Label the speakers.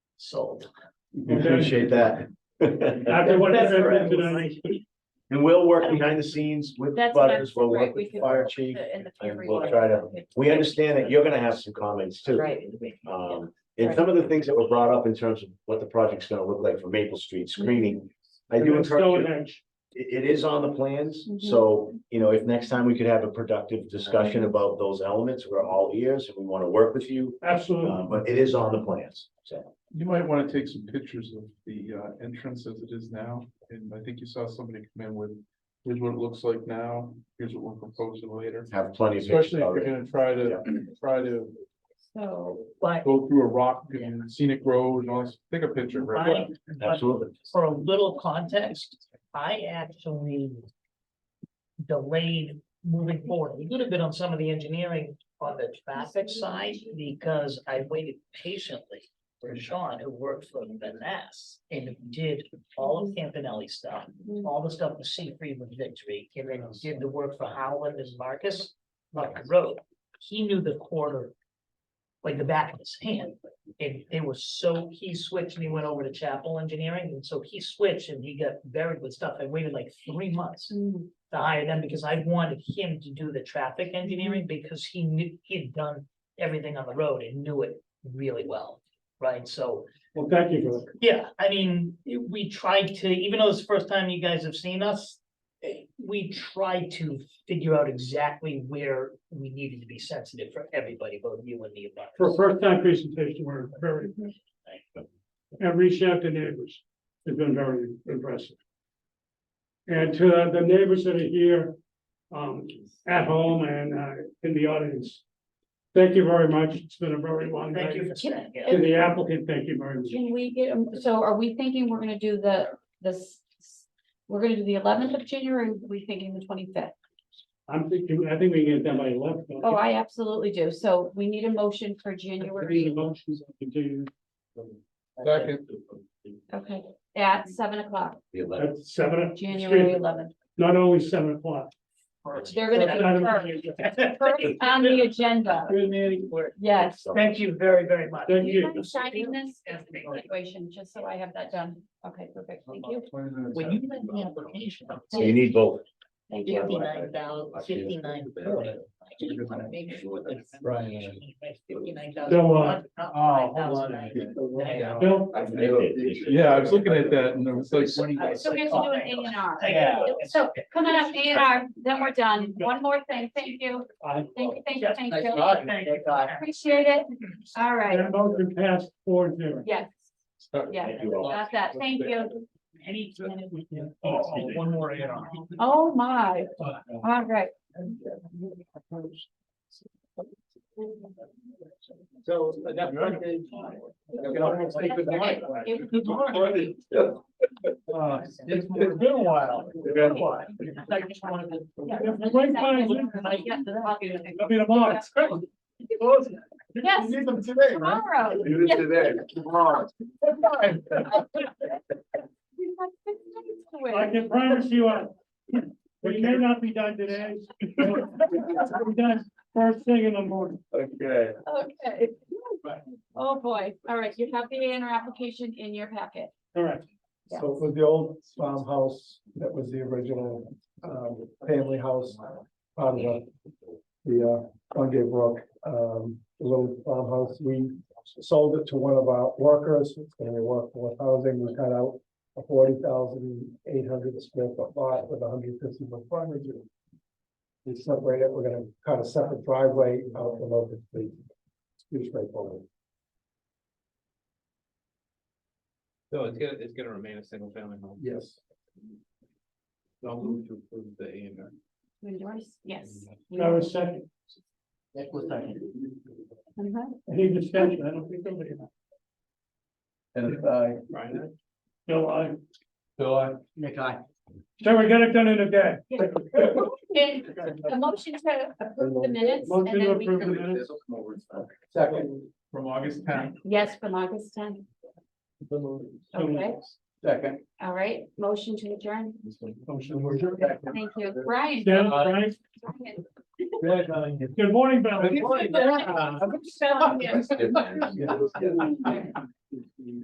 Speaker 1: sold.
Speaker 2: We Appreciate that.
Speaker 3: After what has
Speaker 1: That's where I
Speaker 3: happened
Speaker 1: was
Speaker 3: tonight,
Speaker 2: And we'll work behind the scenes with
Speaker 4: That's what I'm,
Speaker 2: butters, we'll
Speaker 4: right,
Speaker 2: work
Speaker 4: we
Speaker 2: with the
Speaker 4: could.
Speaker 2: fire
Speaker 4: work
Speaker 2: chief.
Speaker 4: the- in the
Speaker 2: and
Speaker 4: future,
Speaker 2: we'll
Speaker 4: like,
Speaker 2: try to-
Speaker 4: okay,
Speaker 2: We understand that you're gonna have some comments too.
Speaker 4: Right.
Speaker 2: Um, and some of the things that were brought up in terms of what the project's gonna look like for Maple Street
Speaker 4: Mm-hmm.
Speaker 2: screening. I do
Speaker 3: and
Speaker 2: encourage, you-
Speaker 3: Stonehenge,
Speaker 2: it, it is on the plans,
Speaker 4: Mhm.
Speaker 2: so, you know, if next time we could have a productive discussion
Speaker 4: Mm-hmm.
Speaker 2: about those elements, we're all ears and we wanna work with you.
Speaker 3: absolutely.
Speaker 2: Uh, but it is on the plans, so.
Speaker 5: You might want to take some pictures of the uh, entrance as it is now, and I think you saw somebody come in with, here's what it looks like now, here's what we're proposing later.
Speaker 2: Have plenty of. pictures
Speaker 5: Especially if you're
Speaker 2: already.
Speaker 5: gonna try to, try to
Speaker 4: So,
Speaker 1: But,
Speaker 5: go through a rock and scenic road, and all this, take a picture,
Speaker 1: I-
Speaker 5: right?
Speaker 1: but
Speaker 2: Absolutely.
Speaker 1: for a little context, I actually delayed moving forward a little bit on some of the engineering on the traffic side because I waited patiently for Sean, who worked for Vanessa and did all of Campanelli stuff, all the stuff with Seafried with Victory, and then did the work for Howland and Marcus, Marcus Road. He knew the quarter like the back of his hand. And it was so, he switched and he went over to Chapel Engineering, and so he switched and he got buried with stuff. I waited like three months
Speaker 4: mm,
Speaker 1: to hire them because I wanted him to do the traffic engineering because he knew, he had done everything on the road and knew it really well, right? So,
Speaker 3: Well, thank you for that.
Speaker 1: yeah, I mean, it- we tried to, even though it's the first time you guys have seen us, eh, we tried to figure out exactly where we needed to be sensitive for everybody, both you and me.
Speaker 3: For a first time presentation, we're very, and reach out to neighbors. It's been very impressive. And to the neighbors that are here, um, at home and, uh, in the audience. Thank you very much. It's been a very long
Speaker 1: Thank
Speaker 3: day.
Speaker 1: you for saying it.
Speaker 3: To the applicant, thank you very much.
Speaker 4: Can we get, a- so are we thinking we're gonna do the, this, we're gonna do the eleventh of January, or are we thinking the twenty-fifth?
Speaker 3: I'm thinking, I think we can get that by eleven.
Speaker 4: Oh, I absolutely do, so we need a motion for
Speaker 3: Three
Speaker 4: January,
Speaker 3: motions, I continue
Speaker 5: Second,
Speaker 4: okay, at seven o'clock,
Speaker 2: The eleventh.
Speaker 3: at seven.
Speaker 4: January eleventh.
Speaker 3: Not only seven o'clock.
Speaker 4: They're gonna be first, first on the agenda,
Speaker 3: Good meeting.
Speaker 4: yes.
Speaker 1: Thank you very, very much.
Speaker 3: Thank
Speaker 4: Do you
Speaker 3: you.
Speaker 4: mind signing this as an evaluation, just so I have that done? Okay, perfect, thank you,
Speaker 1: When you make the application.
Speaker 2: So you need both.
Speaker 4: thank you.
Speaker 1: Fifty-nine thousand, fifty-nine forty. I just wanna make sure that it's-
Speaker 6: Right.
Speaker 1: Fifty-nine thousand.
Speaker 3: So, uh,
Speaker 6: Oh, hold on. a minute.
Speaker 3: Bill,
Speaker 5: yeah, I was looking at that and I was like,
Speaker 4: So we have to do an A and R.
Speaker 6: Yeah.
Speaker 4: So come on up, A and R, then we're done. One more thing. Thank you.
Speaker 3: I,
Speaker 4: Thank you, thank you, thank
Speaker 6: Nice
Speaker 4: you.
Speaker 6: try.
Speaker 1: Thank God.
Speaker 4: Appreciate it.
Speaker 3: Mm-hmm.
Speaker 4: All right.
Speaker 3: that motion passed four zero.
Speaker 4: Yes, yes.
Speaker 2: Thank you all.
Speaker 4: Got that. Thank you.
Speaker 1: Any.
Speaker 6: Oh,
Speaker 1: One more add on.
Speaker 4: Oh, my. All right.
Speaker 6: So that's right. You can almost take the mic.
Speaker 4: Good
Speaker 6: Uh, It's it's been a while. It's been a while.
Speaker 1: I just wanted to.
Speaker 3: Wait, fine, wait. I'll be tomorrow.
Speaker 4: Yes,
Speaker 6: Need them today, right?
Speaker 4: tomorrow.
Speaker 2: Do
Speaker 4: Yes.
Speaker 2: today, tomorrow.
Speaker 4: We've got six minutes to
Speaker 3: I
Speaker 4: wait.
Speaker 3: can promise you, uh, we may not be done today. We're done first thing in the morning.
Speaker 2: Okay.
Speaker 4: Okay. Oh, boy. All right, you have the A and R application in your packet.
Speaker 3: Correct.
Speaker 7: So it was the old farmhouse that was the original, um, family house on the, the, uh, Bungay Brook, um, the little farmhouse. We sold it to one of our workers, it's gonna be workforce housing. We cut out a forty thousand eight hundred square foot lot with hundred fifty foot frontage. We separated, we're gonna cut a separate driveway out from open street. Huge straightforward.
Speaker 8: So it's gonna, it's gonna remain a single family home.
Speaker 7: Yes.
Speaker 8: I'll move to approve the A and R.
Speaker 4: Endorse? Yes.
Speaker 3: Now, a second,
Speaker 1: That was second.
Speaker 4: Uh-huh.
Speaker 3: any discussion, I don't think there'll be.
Speaker 7: And, uh,
Speaker 8: Brian,
Speaker 3: No, I,
Speaker 6: So I.
Speaker 1: Nick, I.
Speaker 3: so we got it done in a day.
Speaker 4: And a motion to approve the minutes and
Speaker 3: Motion to
Speaker 4: then we
Speaker 3: approve the
Speaker 4: can,
Speaker 3: minutes.
Speaker 7: second,
Speaker 6: From August tenth.
Speaker 4: yes, from August tenth.
Speaker 3: So moved.
Speaker 4: Okay,
Speaker 7: second.
Speaker 4: all right, motion to adjourn.
Speaker 3: Motion to adjourn.
Speaker 4: Thank you, Brian.
Speaker 3: Dan, Frank,
Speaker 4: Brian.
Speaker 3: good morning, Bill.
Speaker 4: Brian.
Speaker 6: Yeah.
Speaker 4: Spelling here.
Speaker 2: Yeah.